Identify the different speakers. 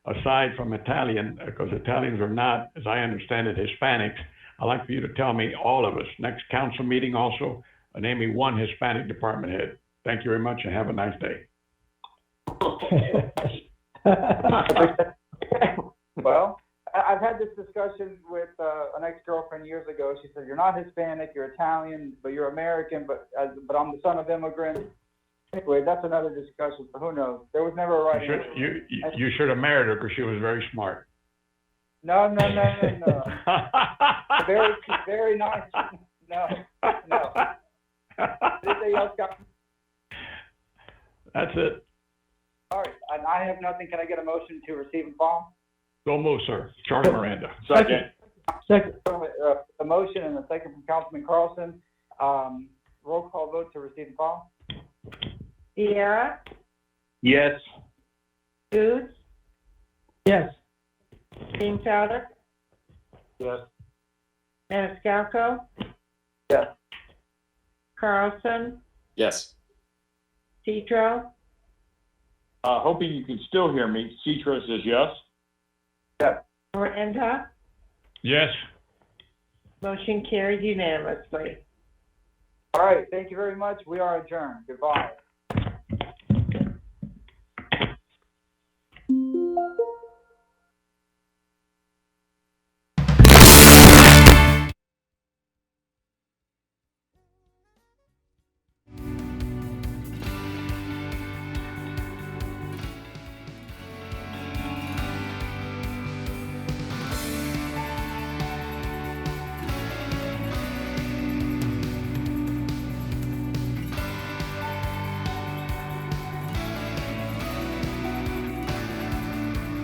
Speaker 1: aside from Italian, because Italians are not, as I understand it, Hispanics, I'd like for you to tell me, all of us, next council meeting also, uh, name me one Hispanic department head. Thank you very much and have a nice day.
Speaker 2: Well, I- I've had this discussion with uh, an ex-girlfriend years ago. She said, "You're not Hispanic. You're Italian, but you're American. But as, but I'm the son of immigrants." Anyway, that's another discussion. But who knows? There was never a
Speaker 1: You
Speaker 2: right.
Speaker 1: should,
Speaker 2: answer.
Speaker 1: you, you- you should have married her because she was very smart.
Speaker 2: No, no, no, no, no. very, very nice. No, no. Anything else, guys?
Speaker 1: That's it.
Speaker 2: All right, and I have nothing. Can I get a motion to receive and file?
Speaker 1: Go move, sir. Charlie Miranda.
Speaker 3: Second.
Speaker 4: Second,
Speaker 2: Uh, A motion and a second from Councilman Carlson. Um, roll call vote to receive and file.
Speaker 5: Viera,
Speaker 3: Yes.
Speaker 5: Goos,
Speaker 4: yes.
Speaker 5: Bienfelder,
Speaker 3: Yes.
Speaker 5: Maniscalco.
Speaker 2: Yes.
Speaker 5: Carlson,
Speaker 3: Yes.
Speaker 5: Pedro,
Speaker 3: Uh, hoping you can still hear me. Citro says yes.
Speaker 5: Miranda.
Speaker 1: Yes.
Speaker 5: Motion carried unanimously.
Speaker 2: All right, thank you very much. We are adjourned. Goodbye.